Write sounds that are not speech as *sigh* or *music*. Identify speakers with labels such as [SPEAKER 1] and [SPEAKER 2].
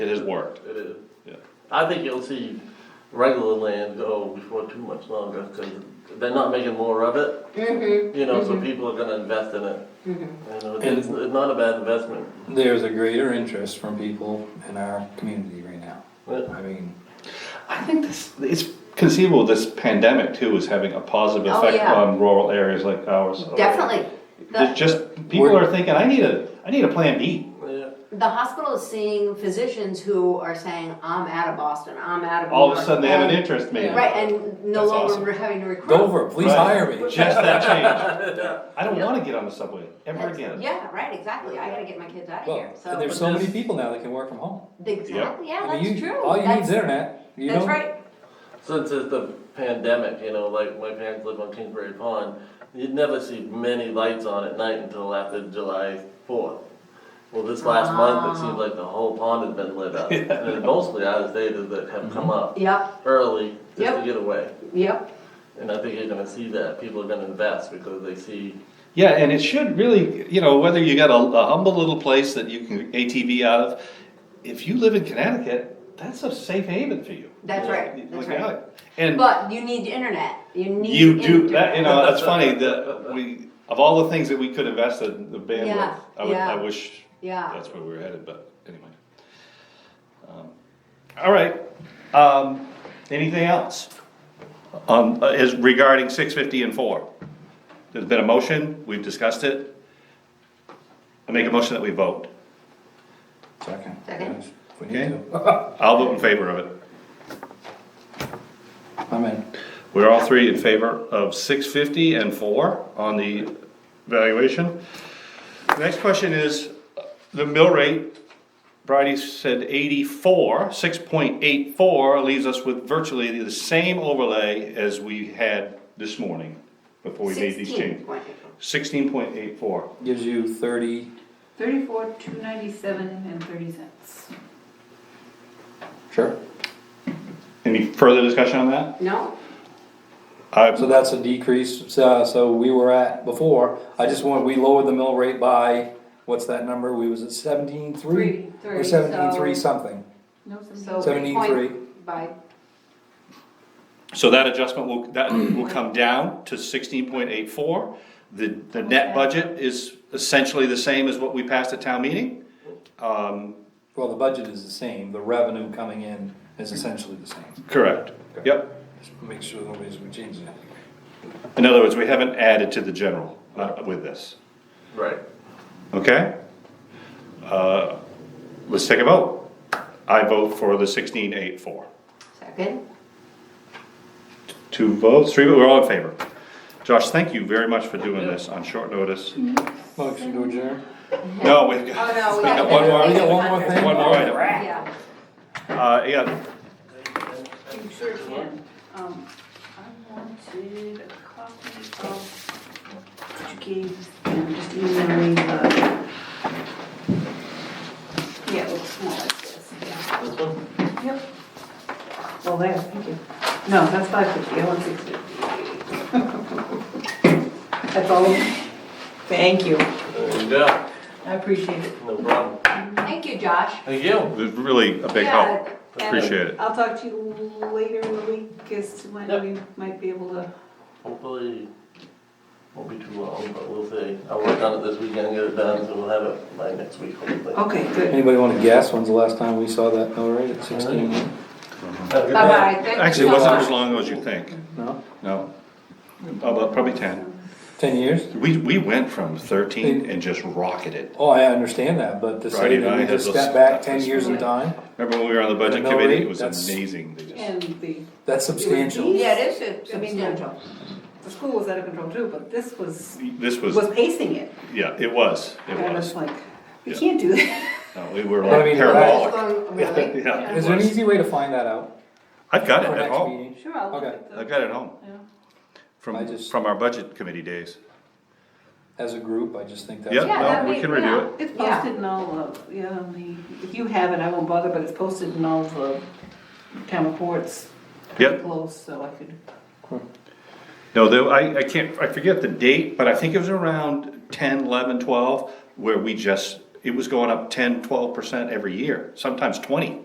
[SPEAKER 1] has worked.
[SPEAKER 2] It is.
[SPEAKER 1] Yeah.
[SPEAKER 2] I think you'll see regular land go before too much longer, cause they're not making more of it,
[SPEAKER 3] Mm-hmm.
[SPEAKER 2] you know, so people are gonna invest in it. You know, it's, it's not a bad investment.
[SPEAKER 4] There's a greater interest from people in our community right now.
[SPEAKER 2] But
[SPEAKER 4] I mean,
[SPEAKER 1] I think this it's conceivable this pandemic too is having a positive
[SPEAKER 3] Oh,
[SPEAKER 1] effect
[SPEAKER 3] yeah.
[SPEAKER 1] on rural areas like ours.
[SPEAKER 3] Definitely.
[SPEAKER 1] It's
[SPEAKER 3] The,
[SPEAKER 1] just people are thinking I need a I need a plan B.
[SPEAKER 2] Yeah,
[SPEAKER 3] the hospital is seeing physicians who are saying, I'm out of Boston, I'm out of New
[SPEAKER 1] All of a
[SPEAKER 3] York,"
[SPEAKER 1] sudden they have an
[SPEAKER 3] and-
[SPEAKER 1] interest maybe.
[SPEAKER 3] Right, and no
[SPEAKER 1] That's
[SPEAKER 3] longer
[SPEAKER 1] awesome.
[SPEAKER 3] we're having to recruit.
[SPEAKER 4] Dover, please
[SPEAKER 1] Right.
[SPEAKER 4] hire me.
[SPEAKER 1] Just that
[SPEAKER 3] *laughs*
[SPEAKER 1] change. I don't want to get on the subway ever
[SPEAKER 3] That's-
[SPEAKER 1] again.
[SPEAKER 3] Yeah, right, exactly. I gotta get my kids out of here,
[SPEAKER 4] Well,
[SPEAKER 3] so.
[SPEAKER 4] and there's so many people now that can work from home.
[SPEAKER 3] Exactly, yeah,
[SPEAKER 4] I mean,
[SPEAKER 3] that's
[SPEAKER 4] you-
[SPEAKER 3] true.
[SPEAKER 4] All you need
[SPEAKER 3] That's-
[SPEAKER 4] is internet, you know?
[SPEAKER 3] That's right.
[SPEAKER 2] since it's the pandemic, you know, like my parents live on Kingsbury Pond, you'd never see many lights on at night until after July fourth. Well, this last month, it seems like the whole pond has been lit up, and it's mostly out of staters that have come up
[SPEAKER 3] Yep,
[SPEAKER 2] early just to
[SPEAKER 3] Mm-hmm. Yep.
[SPEAKER 2] get away.
[SPEAKER 3] yep.
[SPEAKER 2] And I think you're gonna see that, people are gonna invest because they see,
[SPEAKER 1] Yeah, and it should really, you know, whether you got a, a humble little place that you can ATV out of, if you live in Connecticut, that's a safe haven for you.
[SPEAKER 3] That's right,
[SPEAKER 1] Look
[SPEAKER 3] that's
[SPEAKER 1] out.
[SPEAKER 3] right.
[SPEAKER 1] And
[SPEAKER 3] But you need internet. You need.
[SPEAKER 1] you do that, you
[SPEAKER 3] internet.
[SPEAKER 1] know, that's
[SPEAKER 3] *laughs*
[SPEAKER 1] funny that we, of all the things that we could invest in the bandwidth,
[SPEAKER 3] Yeah,
[SPEAKER 1] I would, I
[SPEAKER 3] yeah.
[SPEAKER 1] wish
[SPEAKER 3] Yeah.
[SPEAKER 1] that's where we were headed, but anyway. Um, All right, um, anything else? Um, uh, is regarding six fifty and four? There's been a motion, we've discussed it. I make a motion that we vote.
[SPEAKER 4] Second.
[SPEAKER 3] Second.
[SPEAKER 4] yes, if We need
[SPEAKER 1] Okay.
[SPEAKER 4] to. *laughs*
[SPEAKER 1] I'll vote in favor of it.
[SPEAKER 4] I'm in.
[SPEAKER 1] We're all three in favor of six fifty and four on the valuation. The Next question is, uh, the mill rate, Bridie said eighty-four, six point eight four leaves us with virtually the same overlay as we had this morning before we made these
[SPEAKER 3] 16
[SPEAKER 1] changes.
[SPEAKER 3] point-
[SPEAKER 1] Sixteen point eight four,
[SPEAKER 4] Gives you thirty,
[SPEAKER 5] Thirty-four, two ninety-seven and thirty cents.
[SPEAKER 4] sure.
[SPEAKER 1] any further discussion on that?
[SPEAKER 3] No,
[SPEAKER 4] So
[SPEAKER 1] I,
[SPEAKER 4] that's a decrease, so, uh, so we were at before, I just want, we lowered the mill rate by, what's that number? We was at seventeen three?
[SPEAKER 3] Three,
[SPEAKER 4] Or
[SPEAKER 3] three,
[SPEAKER 4] seventeen
[SPEAKER 3] so-
[SPEAKER 4] three something,
[SPEAKER 5] No,
[SPEAKER 3] so.
[SPEAKER 5] seventeen.
[SPEAKER 4] Seventeen
[SPEAKER 3] point
[SPEAKER 4] three.
[SPEAKER 3] By,
[SPEAKER 1] so that adjustment will, that will come down to sixteen point eight four. The, the net
[SPEAKER 5] Okay.
[SPEAKER 1] budget is essentially the same as what we passed at town meeting. Um,
[SPEAKER 4] well, the budget is the same, the revenue coming in
[SPEAKER 3] Mm-hmm.
[SPEAKER 4] is essentially the same.
[SPEAKER 1] Correct, yep.
[SPEAKER 4] Just Make sure nobody's gonna change that.
[SPEAKER 1] In other words, we haven't added to the general uh, with this,
[SPEAKER 2] right,
[SPEAKER 1] okay? Uh, Let's take a vote. I vote for the sixteen eight four.
[SPEAKER 3] second,
[SPEAKER 1] Two votes, three, we're all in favor. Josh, thank you very much for doing this on short notice.
[SPEAKER 4] Motion to adjourn?
[SPEAKER 1] No, we've got, we
[SPEAKER 3] Mm-hmm. Oh, no, we
[SPEAKER 1] got
[SPEAKER 3] have
[SPEAKER 1] *laughs* one
[SPEAKER 3] to-
[SPEAKER 1] more,
[SPEAKER 4] We
[SPEAKER 3] *laughs*
[SPEAKER 4] got one more thing?
[SPEAKER 1] one more item.
[SPEAKER 3] yeah.
[SPEAKER 1] Uh, yeah,
[SPEAKER 5] You sure can. Um, I wanted a copy of what you gave, I'm just emailing the. Yeah, it looks more like this, yeah.
[SPEAKER 2] this one,
[SPEAKER 5] Yep. Well, there, thank you. No, that's five fifty, *laughs* I want six fifty. That's all. of them. Thank you.
[SPEAKER 2] there you go,
[SPEAKER 5] I appreciate it.
[SPEAKER 2] no problem,
[SPEAKER 3] Thank you, Josh.
[SPEAKER 2] thank you.
[SPEAKER 1] it was really a big help,
[SPEAKER 5] Yeah, and
[SPEAKER 1] appreciate it.
[SPEAKER 5] I'll talk to you later in the week as to when
[SPEAKER 2] Yep.
[SPEAKER 5] we might be able to.
[SPEAKER 2] Hopefully, won't be too long, but we'll see. I'll work on it this weekend, get it done, so we'll have it by next week, hopefully.
[SPEAKER 5] Okay, good.
[SPEAKER 4] Anybody wanna guess when's the last time we saw that mill rate at sixteen?
[SPEAKER 2] Have a good night.
[SPEAKER 3] Bye-bye, thank you
[SPEAKER 1] Actually, it
[SPEAKER 3] so
[SPEAKER 1] wasn't
[SPEAKER 3] much.
[SPEAKER 1] as long as you think,
[SPEAKER 4] No,
[SPEAKER 1] no, about probably ten.
[SPEAKER 4] ten years?
[SPEAKER 1] We, we went from thirteen and just rocketed.
[SPEAKER 4] Oh, I understand that, but to
[SPEAKER 1] Friday
[SPEAKER 4] say that we
[SPEAKER 1] night
[SPEAKER 4] just
[SPEAKER 1] has
[SPEAKER 4] step
[SPEAKER 1] a-
[SPEAKER 4] back ten years in
[SPEAKER 5] Right.
[SPEAKER 4] time,
[SPEAKER 1] Remember when we were on the budget
[SPEAKER 4] The mill
[SPEAKER 1] committee,
[SPEAKER 4] rate,
[SPEAKER 1] it was
[SPEAKER 4] that's-
[SPEAKER 1] amazing, they just,
[SPEAKER 5] And the,
[SPEAKER 4] that's substantial.
[SPEAKER 3] Yeah, it is
[SPEAKER 5] I mean, the
[SPEAKER 3] substantial.
[SPEAKER 5] the school was out of control too, but this was,
[SPEAKER 1] this was,
[SPEAKER 5] was pacing it.
[SPEAKER 1] yeah, it was, it
[SPEAKER 5] And it's
[SPEAKER 1] was.
[SPEAKER 5] like, we
[SPEAKER 1] Yeah.
[SPEAKER 5] can't do
[SPEAKER 3] *laughs*
[SPEAKER 5] that.
[SPEAKER 1] No, we were
[SPEAKER 4] I
[SPEAKER 1] like
[SPEAKER 4] mean,
[SPEAKER 3] It's
[SPEAKER 1] parabolic.
[SPEAKER 3] going Really?
[SPEAKER 1] Yeah,
[SPEAKER 4] Is
[SPEAKER 1] it
[SPEAKER 4] there an
[SPEAKER 1] was.
[SPEAKER 4] easy way to find that out?
[SPEAKER 1] I've got it
[SPEAKER 4] for
[SPEAKER 1] at
[SPEAKER 4] next
[SPEAKER 1] home,
[SPEAKER 4] meeting?
[SPEAKER 5] Sure, I'll look
[SPEAKER 4] Okay.
[SPEAKER 5] at the.
[SPEAKER 1] I've got it at home,
[SPEAKER 5] yeah.
[SPEAKER 4] I
[SPEAKER 1] from,
[SPEAKER 4] just-
[SPEAKER 1] from our budget committee days.
[SPEAKER 4] As a group, I just think that's.
[SPEAKER 1] Yep,
[SPEAKER 3] Yeah,
[SPEAKER 1] no,
[SPEAKER 3] that'd
[SPEAKER 1] we
[SPEAKER 3] be-
[SPEAKER 1] can review it.
[SPEAKER 3] yeah.
[SPEAKER 5] It's
[SPEAKER 3] Yeah.
[SPEAKER 5] posted in all of, yeah, on the- if you have it, I won't bother, but it's posted in all the town reports. pretty
[SPEAKER 1] Yep.
[SPEAKER 5] Close, so I could,
[SPEAKER 1] No, though, I, I can't, I forget the date, but I think it was around ten, eleven, twelve, where we just, it was going up ten, twelve percent every year, sometimes twenty.